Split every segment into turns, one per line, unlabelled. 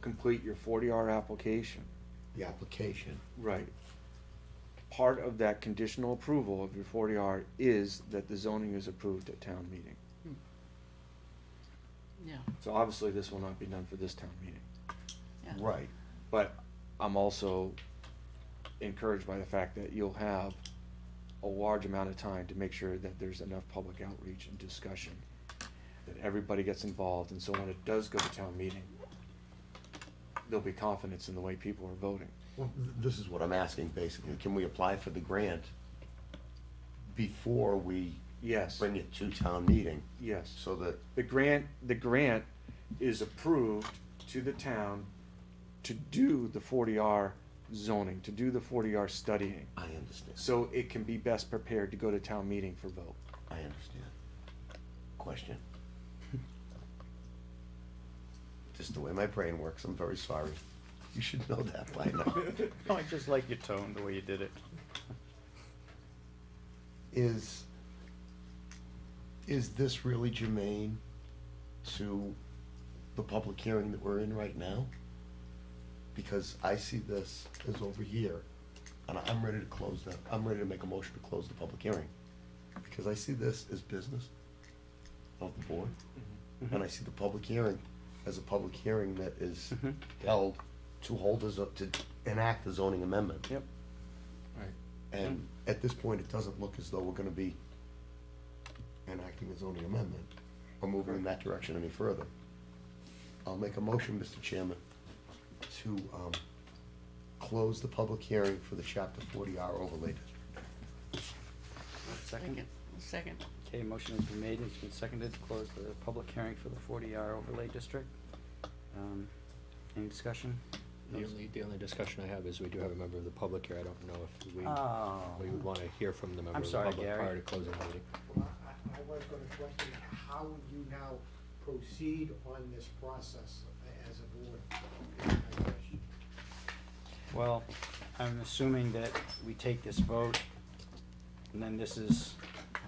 complete your forty R application.
the application.
Right. Part of that conditional approval of your forty R is that the zoning is approved at town meeting.
Yeah,
So obviously, this will not be done for this town meeting.
yeah.
Right.
But I'm also encouraged by the fact that you'll have a large amount of time to make sure that there's enough public outreach and discussion, that everybody gets involved, and so when it does go to town meeting, there'll be confidence in the way people are voting.
Well, th- This is what I'm asking, basically. Can we apply for the grant before we
Yes,
bring it to town meeting?
yes.
So that,
The grant, the grant is approved to the town to do the forty R zoning, to do the forty R studying,
I understand,
so it can be best prepared to go to town meeting for vote.
I understand. Question. Just the way my brain works, I'm very sorry. You should know that by now.
No, I just like your tone, the way you did it.
Is, is this really germane to the public hearing that we're in right now? Because I see this as over here, and I'm ready to close that, I'm ready to make a motion to close the public hearing. Because I see this as business of the board, and I see the public hearing as a public hearing that is held to hold us up to enact the zoning amendment.
Yep. Right.
Mm.
And at this point, it doesn't look as though we're gonna be enacting a zoning amendment or moving in that direction any further. I'll make a motion, Mr. Chairman, to, um, close the public hearing for the chapter forty R overlay district.
Second, second,
Okay, motion has been made, and it's been seconded to close the public hearing for the forty R overlay district. Um, any discussion?
The only, the only discussion I have is we do have a member of the public here. I don't know if we,
Oh,
we would wanna hear from the member of the
sorry,
public
Gary.
prior to closing the meeting.
Well, I, I was gonna question how you now proceed on this process as a board. That's my question.
well, I'm assuming that we take this vote, and then this is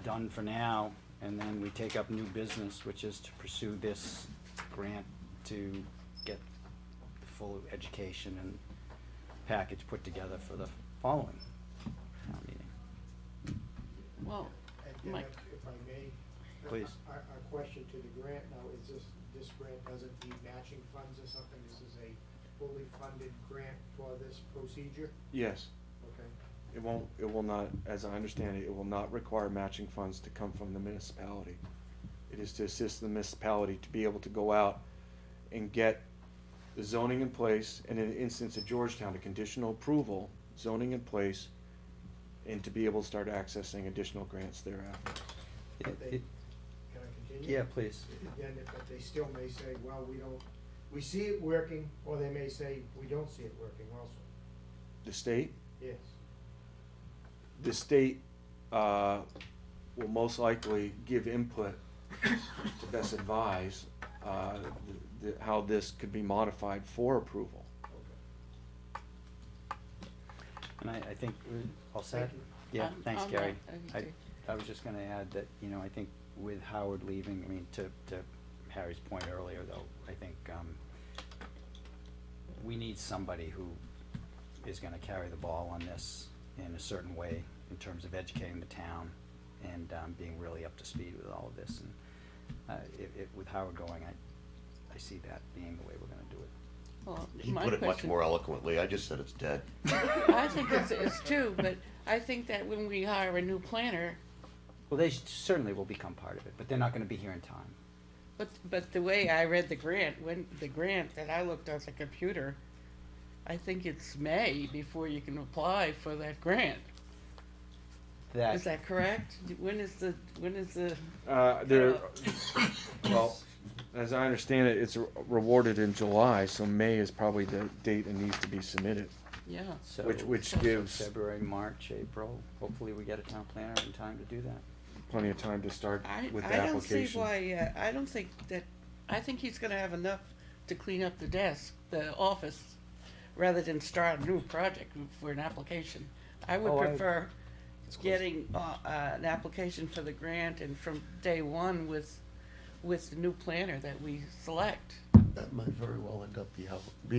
done for now, and then we take up new business, which is to pursue this grant to get the full education and package put together for the following town meeting.
well,
And then
Mike.
if- If I may.
Please.
Our, our question to the grant now, is this, this grant doesn't need matching funds or something? This is a fully funded grant for this procedure?
Yes,
Okay.
it won't, it will not, as I understand it, it will not require matching funds to come from the municipality. It is to assist the municipality to be able to go out and get the zoning in place, and in the instance of Georgetown, a conditional approval, zoning in place, and to be able to start accessing additional grants thereafter.
It-
They-
it-
Can I continue?
Yeah, please.
Then, if- but they still may say, well, we don't, we see it working, or they may say, we don't see it working also.
The state,
Yes.
the state, uh, will most likely give input to best advise, uh, the, the, how this could be modified for approval.
Okay.
And I, I think we're all set?
Thank you.
Yeah,
Um,
thanks,
um,
Gary.
I- I
I,
do.
I was just gonna add that, you know, I think with Howard leaving, I mean, to, to Harry's point earlier though, I think, um, we need somebody who is gonna carry the ball on this in a certain way in terms of educating the town and, um, being really up to speed with all of this. And, uh, if, if, with Howard going, I, I see that being the way we're gonna do it.
well,
He
my
put it much
question.
more eloquently, I just said it's dead.
I think it's, it's two, but I think that when we hire a new planner,
Well, they certainly will become part of it, but they're not gonna be here in time.
but, but the way I read the grant, when, the grant that I looked on the computer, I think it's May before you can apply for that grant. Is that correct? When is the, when is the,
Uh, there, well, as I understand it, it's rewarded in July, so May is probably the date it needs to be submitted,
yeah,
So-
which, which
so
gives
February, March, April, hopefully we get a town planner in time to do that.
plenty of time to start
I,
with the
I don't see
application.
why, uh, I don't think that, I think he's gonna have enough to clean up the desk, the office, rather than start a new project for an application. I would
Oh, I-
prefer getting, uh, uh, an application for the grant and from day one with, with the new planner that we select.
that might very well end up be how, be